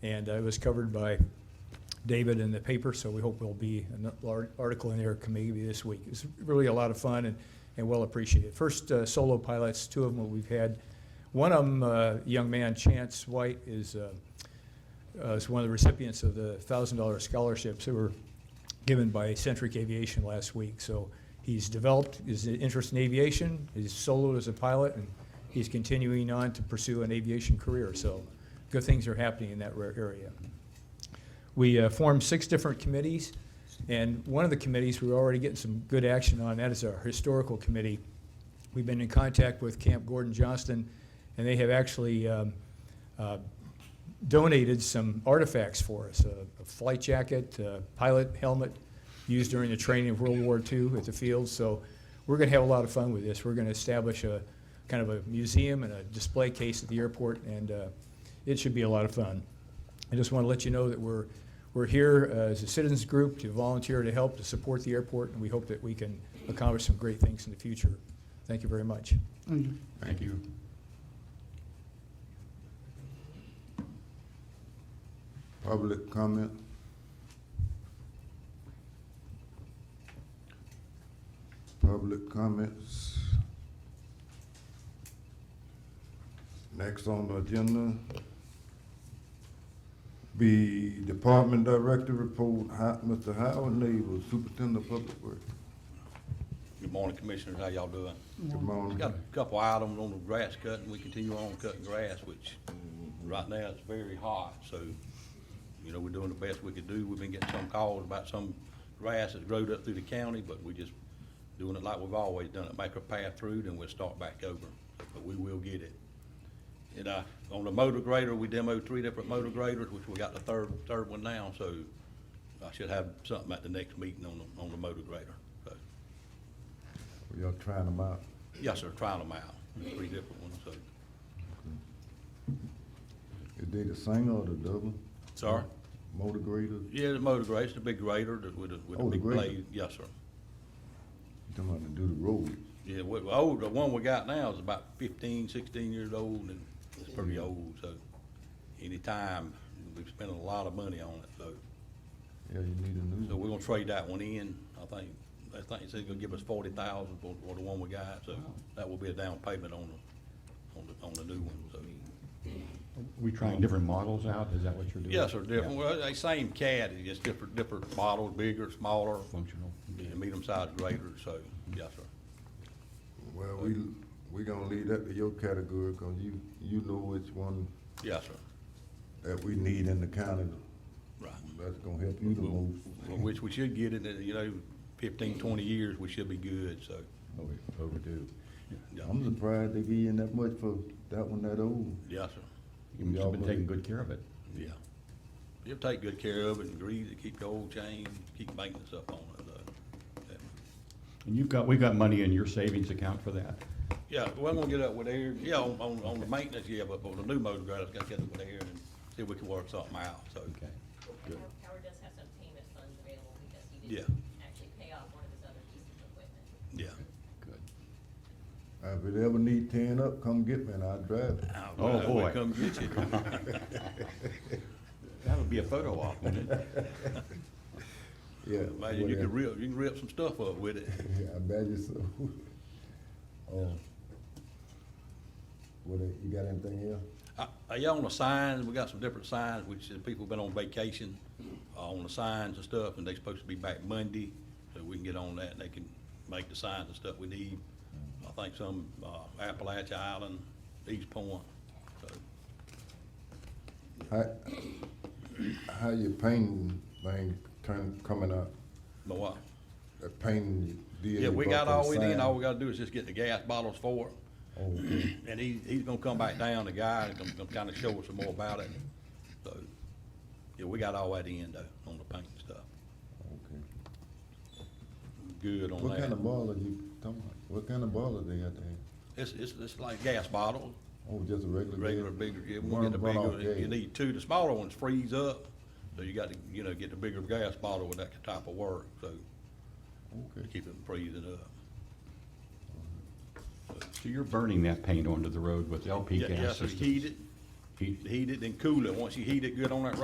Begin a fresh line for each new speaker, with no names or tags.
And uh, it was covered by David in the paper, so we hope there'll be an lar- article in there maybe this week. It's really a lot of fun and, and well appreciated. First uh, solo pilots, two of them we've had. One of them, uh, young man Chance White, is uh, uh, is one of the recipients of the $1,000 scholarships that were given by Centric Aviation last week. So he's developed his interest in aviation, he's soloed as a pilot, and he's continuing on to pursue an aviation career. So good things are happening in that rare area. We uh, formed six different committees, and one of the committees we're already getting some good action on, that is our historical committee. We've been in contact with Camp Gordon Johnston, and they have actually um, uh, donated some artifacts for us, a a flight jacket, a pilot helmet used during the training of World War II at the field. So we're going to have a lot of fun with this. We're going to establish a, kind of a museum and a display case at the airport, and uh, it should be a lot of fun. I just want to let you know that we're, we're here uh, as a citizens group to volunteer to help to support the airport, and we hope that we can accomplish some great things in the future. Thank you very much.
Thank you.
Thank you. Public comment? Public comments? Next on the agenda be Department Director Report, Hi- Mr. Howard Neighbors, Superintendent of Public Works.
Good morning, Commissioners. How y'all doing?
Good
We
morning.
Got a couple items on the grass cutting. We continue on cutting grass, which right now it's very hot, so, you know, we're doing the best we could do. We've been getting some calls about some grass that's growed up through the county, but we just doing it like we've always done it. Make a path through, then we'll start back over, but we will get it. And, uh, on the motor grader, we demoed three different motor graders, which we got the third, third one now, so I should have something at the next meeting on the, on the motor grader, so.
Y'all trying them out?
Yes, sir, trial them out, There's three different ones, so.
Is they the single or the double?
Sorry?
Motor grader?
Yeah, the motor grader, the big grader that with the, with the
Oh, the
big
grader.
blade, yes, sir.
You talking about to do the road?
Yeah, we, oh, the one we got now is about fifteen, sixteen years old, and it's pretty old, so. Anytime, we've spent a lot of money on it, so,
Yeah, you need a new
so
one.
we're gonna trade that one in, I think, I think it's gonna give us forty thousand for, for the one we got, so that will be a down payment on the, on the, on the new one, so.
We trying different models out, is that what you're doing?
Yes, sir, different,
Um, Yeah.
well, they same CAD, it's just different, different models, bigger, smaller,
Functional.
and medium-sized grader, so, yes, sir.
Well, we, we gonna leave that to your category, cause you, you know which one
Yes, sir,
that we need in the county.
right.
That's gonna help you the
Well, well,
most.
Which we should get in, you know, fifteen, twenty years, we should be good, so.
Oh, yeah.
Overdue.
yeah.
I'm surprised they be in that much for that one that old.
Yes, sir,
You must have been taking good care of it.
yeah. You'll take good care of it and grease it, keep the old chain, keep maintenance up on it, though.
And you've got, we've got money in your savings account for that.
Yeah, well, I'm gonna get up with Aaron, yeah, on, on, on the maintenance, yeah, but on the new motor grader, I gotta get up with Aaron and see if we can work something out, so.
Okay, good.
Howard does have some payment funds available because he
Yeah.
didn't actually pay off one of his other pieces of equipment.
Yeah.
Good.
If it ever need tearing up, come get me and I'll drive it.
Ah,
Oh,
well, we
boy.
Come get you.
That'll be a photo op, wouldn't it?
Yeah.
Imagine you could
whatever.
rip, you can rip some stuff up with it.
I bet you so. Oh. What, uh, you got anything else?
Uh, Are y'all on the signs? We got some different signs, which is people been on vacation, uh, on the signs and stuff, and they supposed to be back Monday, so we can get on that, and they can make the signs and stuff we need. I think some, uh, Appalachia Island, East Point, so,
How, how your painting thing turn, coming up,
but what?
the painting deal?
Yeah,
you
we
bought
got all
for
we
the
need, all we
sign?
gotta do is just get the gas bottles for it.
Oh, okay.
And he, he's gonna come back down, the guy, and gonna, gonna kinda show us some more about it. So, yeah, we got all that in though, on the paint and stuff.
okay.
Good on that.
What kind of boiler you talking about? What kind of boiler they got there?
It's, it's, it's like gas bottles,
Oh, just a regular?
regular
gas?
bigger, yeah, we
One
get the bigger,
runoff
one. you
gas.
need two, the smaller ones freeze up. So you got to, you know, get the bigger gas bottle with that type of work, so
Okay.
keep it from freezing up.
So you're burning that paint onto the road with LP
Yeah,
gas
Yes, sir,
systems?
heat it,
Heat.
heat it and cool it. Once you heat it good on that